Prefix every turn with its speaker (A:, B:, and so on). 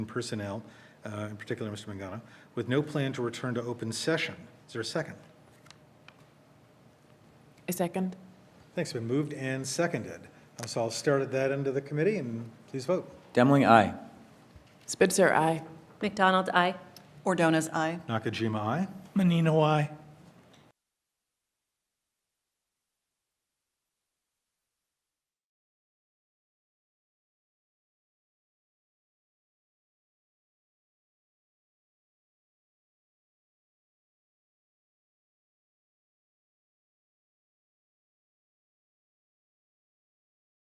A: and personnel, uh, in particular Mr. Mangano, with no plan to return to open session. Is there a second?
B: A second.
A: Thanks, been moved and seconded. Uh, So I'll start at that end of the committee, and please vote.
C: Demling, aye.
B: Spitzer, aye.
D: McDonald, aye.
E: Ordona's aye.
A: Nakajima, aye.
F: Menino, I.